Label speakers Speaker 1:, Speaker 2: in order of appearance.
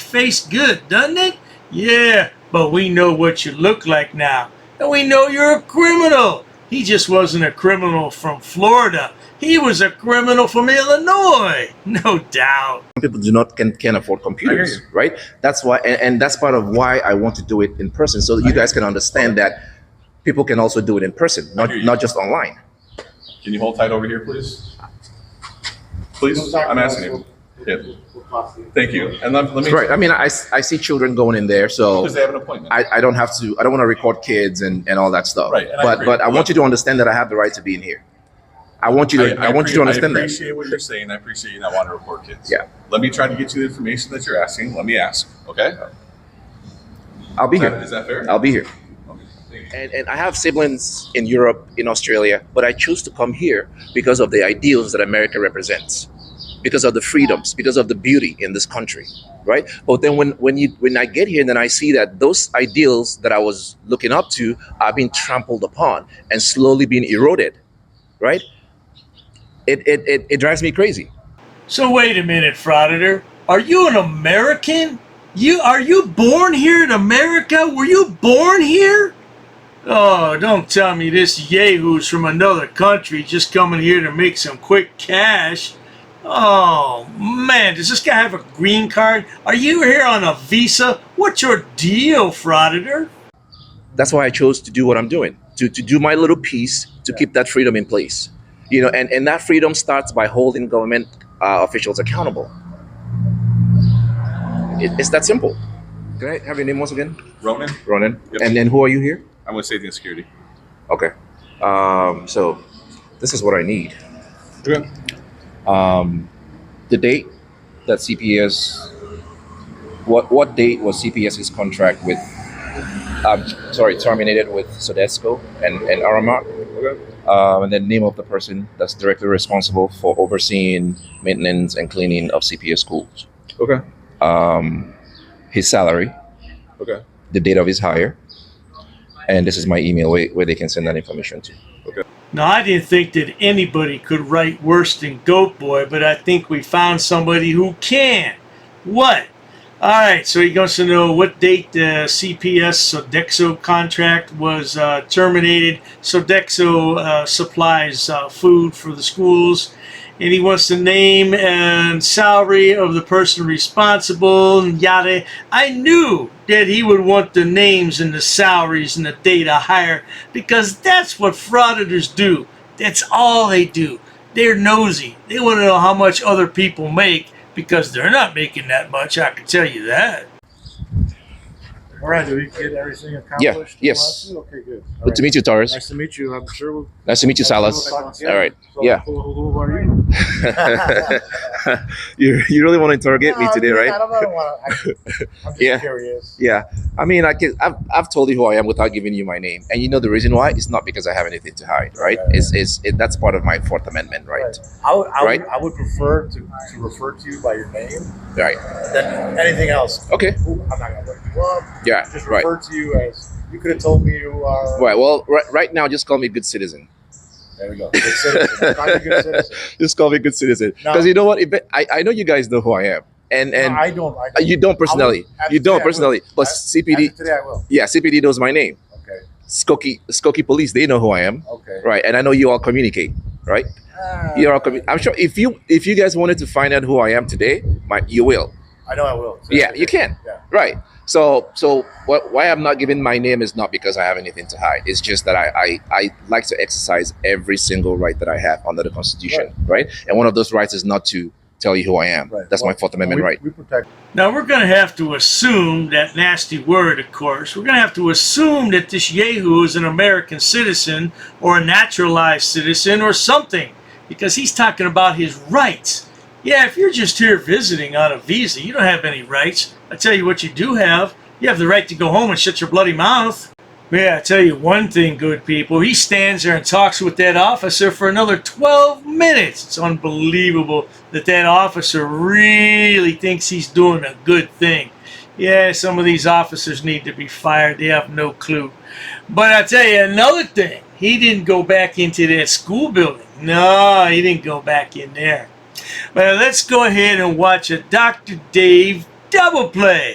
Speaker 1: face good, doesn't it? Yeah, but we know what you look like now. And we know you're a criminal. He just wasn't a criminal from Florida. He was a criminal from Illinois. No doubt.
Speaker 2: people do not can can afford computers,
Speaker 3: you.
Speaker 2: right? That's why, and, and that's part of why I want to do it in person, so that you guys can understand that people can also do it in person, not
Speaker 3: hear you.
Speaker 2: not just online.
Speaker 3: Can you hold tight over here, please? Please, I'm asking you. Yeah. Thank you. And let let me,
Speaker 2: Right. I mean, I, s- I see children going in there, so
Speaker 3: because they have an appointment.
Speaker 2: I, I don't have to. I don't want to record kids and, and all that stuff.
Speaker 3: Right, and I
Speaker 2: But
Speaker 3: agree.
Speaker 2: but I
Speaker 3: Look-
Speaker 2: want you to understand that I have the right to be in here. I want you to. I, want you to
Speaker 3: appre-
Speaker 2: understand that.
Speaker 3: I appreciate what you're saying. I appreciate you not wanting to report kids.
Speaker 2: Yeah.
Speaker 3: Let me try to get you the information that you're asking. Let me ask. Okay.
Speaker 2: I'll be
Speaker 3: Is that-
Speaker 2: here.
Speaker 3: is that fair?
Speaker 2: I'll be here.
Speaker 3: Okay, thank you.
Speaker 2: And, and I have siblings in Europe, in Australia, but I choose to come here because of the ideals that America represents, because of the freedoms, because of the beauty in this country, right? But then when, when, you, when I get here, then I see that those ideals that I was looking up to are being trampled upon and slowly being eroded, right? It, it, it, it drives me crazy.
Speaker 1: So wait a minute, frauditor. Are you an American? You are you born here in America? Were you born here? Oh, don't tell me this yahoo's from another country just coming here to make some quick cash. Oh man, does this guy have a green card? Are you here on a visa? What's your deal, frauditor?
Speaker 2: that's why I chose to do what I'm doing, to, to do my little piece to keep that freedom in place. You know, and, and that freedom starts by holding government uh, officials accountable. It, it's that simple. Can I have your name once again?
Speaker 3: Ronan,
Speaker 2: Ronan.
Speaker 3: Yep.
Speaker 2: And then who are you here?
Speaker 3: I'm with safety and security.
Speaker 2: Okay. Um, so this is what I need.
Speaker 3: Okay.
Speaker 2: Um, the date that CPS, what what date was CPS's contract with, um, sorry, terminated with Sodesco and, and Aramark? um, and then name of the person that's directly responsible for overseeing maintenance and cleaning of CPS schools.
Speaker 3: Okay.
Speaker 2: Um, his salary,
Speaker 3: Okay.
Speaker 2: the date of his hire, and this is my email where, where they can send that information to.
Speaker 1: Now, I didn't think that anybody could write worse than Goat Boy, but I think we found somebody who can. What? All right, so he wants to know what date the CPS Sodexo contract was uh, terminated. Sodexo uh, supplies uh, food for the schools, and he wants the name and salary of the person responsible, and yada. I knew that he would want the names and the salaries and the date of hire because that's what frauditors do. That's all they do. They're nosy. They want to know how much other people make because they're not making that much. I can tell you that.
Speaker 4: All right, did we get everything
Speaker 2: Yeah,
Speaker 4: accomplished?
Speaker 2: yes.
Speaker 4: Okay, good. All
Speaker 2: Good to
Speaker 4: right.
Speaker 2: meet you, Torres.
Speaker 4: Nice to meet you. I'm sure we'll.
Speaker 2: Nice to meet you, Salas. All right.
Speaker 4: So
Speaker 2: Yeah.
Speaker 4: Who, who are you?
Speaker 2: you you really want to interrogate me
Speaker 4: No, I
Speaker 2: today,
Speaker 4: mean,
Speaker 2: right?
Speaker 4: Oh, I don't, I don't wanna- I- I'm just
Speaker 2: Yeah.
Speaker 4: curious.
Speaker 2: Yeah, I mean, I can, I've, I've told you who I am without giving you my name, and you know the reason why? It's not because I have anything to hide, right?
Speaker 4: Right.
Speaker 2: It's, it's it, that's part of my Fourth Amendment, right?
Speaker 4: I would, I
Speaker 2: Right.
Speaker 4: would, I would prefer to, to refer to you by your name
Speaker 2: Right.
Speaker 4: than anything else.
Speaker 2: Okay.
Speaker 4: Who- I'm not gonna look you up.
Speaker 2: Yeah.
Speaker 4: Just
Speaker 2: Right.
Speaker 4: refer to you as, you could have told me you are.
Speaker 2: Right. Well, right, right now, just call me good citizen.
Speaker 4: There we go. Good citizen. I'm a good citizen.
Speaker 2: Just call me good citizen,
Speaker 4: No.
Speaker 2: because you know what? If it- I, I know you guys know who I am, and and uh,
Speaker 4: No, I don't, I.
Speaker 2: you don't personally,
Speaker 4: after
Speaker 2: you don't
Speaker 4: today I will.
Speaker 2: personally, but
Speaker 4: I-
Speaker 2: CPD,
Speaker 4: after Today I will.
Speaker 2: yeah, CPD knows my name.
Speaker 4: Okay,
Speaker 2: Skokie Skokie Police, they know who I am,
Speaker 4: okay.
Speaker 2: right? And I know you all communicate, right?
Speaker 4: Ah,
Speaker 2: You're all commu- I'm sure if you if you guys wanted to find out who I am today, my you will.
Speaker 4: I know I will.
Speaker 2: Yeah, you can.
Speaker 4: Yeah.
Speaker 2: Right. So, so what, why I'm not giving my name is not because I have anything to hide. It's just that I, I, I like to exercise every single right that I have under the Constitution, right? And one of those rights is not to tell you who I am.
Speaker 4: Right.
Speaker 2: That's my
Speaker 4: Well,
Speaker 2: Fourth Amendment
Speaker 4: We-
Speaker 2: right.
Speaker 4: We protect.
Speaker 1: Now we're going to have to assume that nasty word, of course. We're going to have to assume that this Yahoo is an American citizen or a naturalized citizen or something because he's talking about his rights. Yeah, if you're just here visiting on a visa, you don't have any rights. I tell you what you do have. You have the right to go home and shut your bloody mouth. Yeah, I tell you one thing, good people. He stands there and talks with that officer for another 12 minutes. It's unbelievable that that officer really thinks he's doing a good thing. Yeah, some of these officers need to be fired. They have no clue. But I tell you another thing. He didn't go back into that school building. No, he didn't go back in there. Well, let's go ahead and watch a Dr. Dave double play.